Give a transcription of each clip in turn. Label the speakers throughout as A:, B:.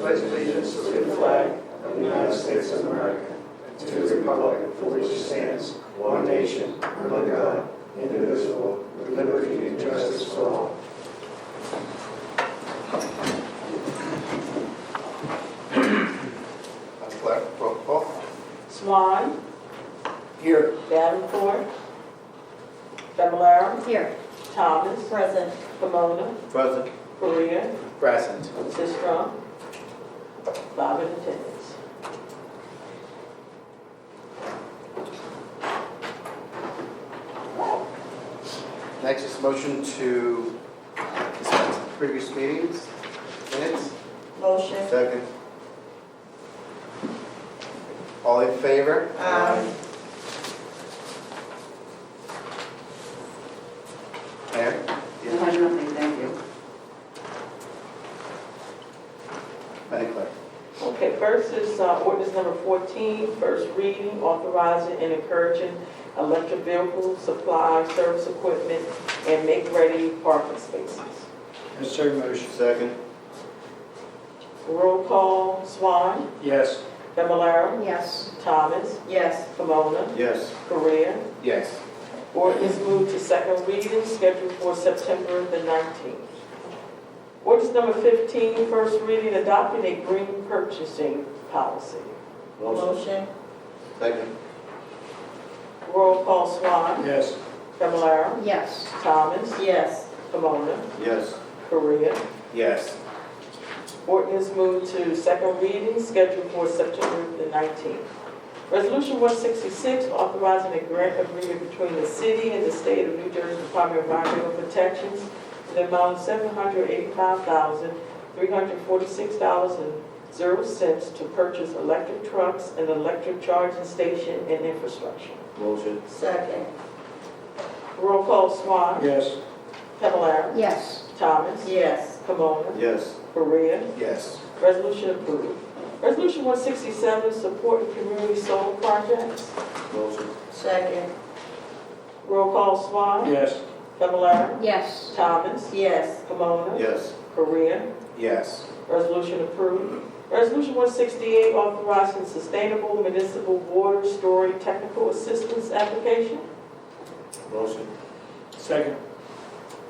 A: pledge allegiance to the flag of the United States of America, and to the republic for which it stands, one nation, under God, indivisible, with liberty and justice for all.
B: Madam Clerk, roll call.
C: Swan,
B: Here.
C: Davenport, Fablelaro,
D: Here.
C: Thomas,
D: Present.
C: Pomona,
B: Present.
C: Korea,
B: Present.
C: Sistrum, Bob in attendance.
B: Next is motion to uh, dispense with previous meetings, minutes.
D: Motion.
B: Second. All in favor?
D: Aye.
B: Mayor?
E: No, nothing, thank you.
B: Madam Clerk.
C: Okay, first is uh, ordinance number 14, first reading, authorizing and encouraging electric vehicle supply, service equipment, and make-ready parking spaces.
A: Mr. Motion.
B: Second.
C: Roll call, Swan,
A: Yes.
C: Fablelaro,
D: Yes.
C: Thomas,
D: Yes.
C: Pomona,
B: Yes.
C: Korea.
B: Yes.
C: Ordinance moved to second reading, scheduled for September the 19th. Ordinance number 15, first reading, adopting a green purchasing policy.
D: Motion.
B: Second.
C: Roll call Swan,
A: Yes.
C: Fablelaro,
D: Yes.
C: Thomas,
D: Yes.
C: Pomona,
B: Yes.
C: Korea.
B: Yes.
C: Ordinance moved to second reading, scheduled for September the 19th. Resolution 166, authorizing a grant agreement between the city and the state of New Jersey Department of Environmental Protections in the amount of $785,346.0 to purchase electric trucks and electric charging station and infrastructure.
B: Motion.
D: Second.
C: Roll call Swan.
A: Yes.
C: Cavalera.
D: Yes.
C: Thomas.
D: Yes.
C: Pomona.
B: Yes.
C: Korea.
B: Yes.
C: Resolution approved. Resolution 167, supporting community solar projects.
B: Motion.
D: Second.
C: Roll call Swan.
A: Yes.
C: Fablelaro.
D: Yes.
C: Thomas.
D: Yes.
C: Pomona.
B: Yes.
C: Korea.
B: Yes.
C: Resolution approved. Resolution 168, authorizing sustainable municipal water storage technical assistance application.
B: Motion.
A: Second.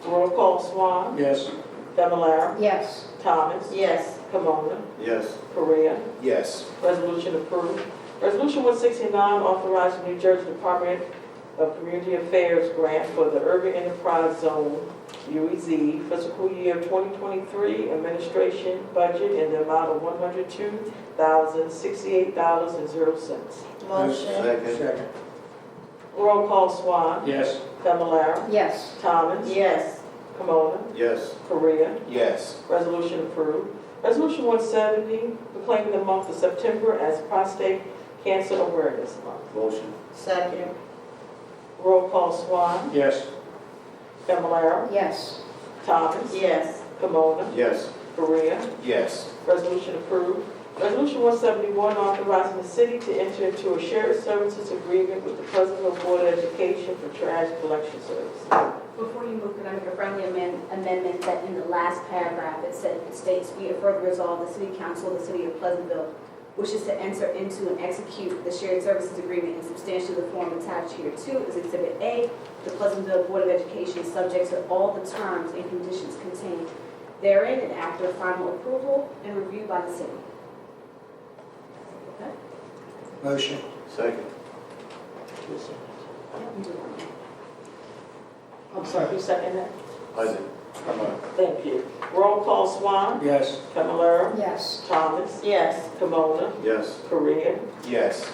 C: Roll call Swan.
A: Yes.
C: Fablelaro.
D: Yes.
C: Thomas.
D: Yes.
C: Pomona.
B: Yes.
C: Korea.
B: Yes.
C: Resolution approved. Resolution 169, authorizing New Jersey Department of Community Affairs grant for the Urban Enterprise Zone, E UEZ, fiscal year 2023 administration budget in the amount of $102,068.00.
D: Motion.
B: Second.
A: Second.
C: Roll call Swan,
A: Yes.
C: Familar,
D: Yes.
C: Thomas,
D: Yes.
C: Camona,
B: Yes.
C: Korea.
B: Yes.
C: Resolution approved. Resolution 170, proclaiming the month of September as prostate cancer awareness month.
B: Motion.
D: Second.
C: Roll call Swan,
A: Yes.
C: Fablelaro,
D: Yes.
C: Thomas,
D: Yes.
C: Camona,
B: Yes.
C: Korea.
B: Yes.
C: Resolution approved. Resolution 171, authorizing the city to enter into a shared services agreement with the Pleasantville Board of Education for trash collection services.
F: Before you move, could I make a friendly amend- amendment that in the last paragraph, it said, it states, "We have further resolved, the City Council of the City of Pleasantville wishes to enter into and execute the shared services agreement in substantially the form attached here too as Exhibit A, the Pleasantville Board of Education, subject to all the terms and conditions contained therein and after final approval and review by the city." Okay?
A: Motion.
B: Second.
C: I'm sorry, who seconded that?
B: I did. Come on.
C: Thank you. Roll call Swan,
A: Yes.
C: Fablelaro,
D: Yes.
C: Thomas,
D: Yes.
C: Camona,
B: Yes.
C: Korea.
B: Yes.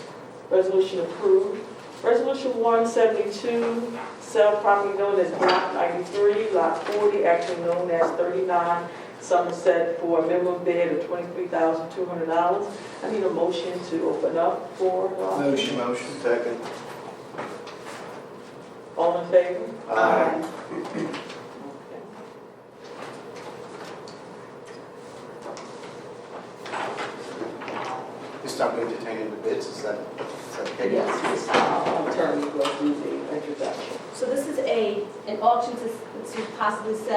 C: Resolution approved. Resolution 172, sell property known as Block 93, Lot 40, actually known as 39 Somerset, for a minimum bid of $23,200. I need a motion to open up for, uh,
A: Motion.
B: Motion. Second.
C: all in favor?
B: Aye. This time we entertain the bids, is that, is that okay?
C: Yes, Ms. uh, Attorney, will do the introduction.
F: So this is a, an auction to to possibly sell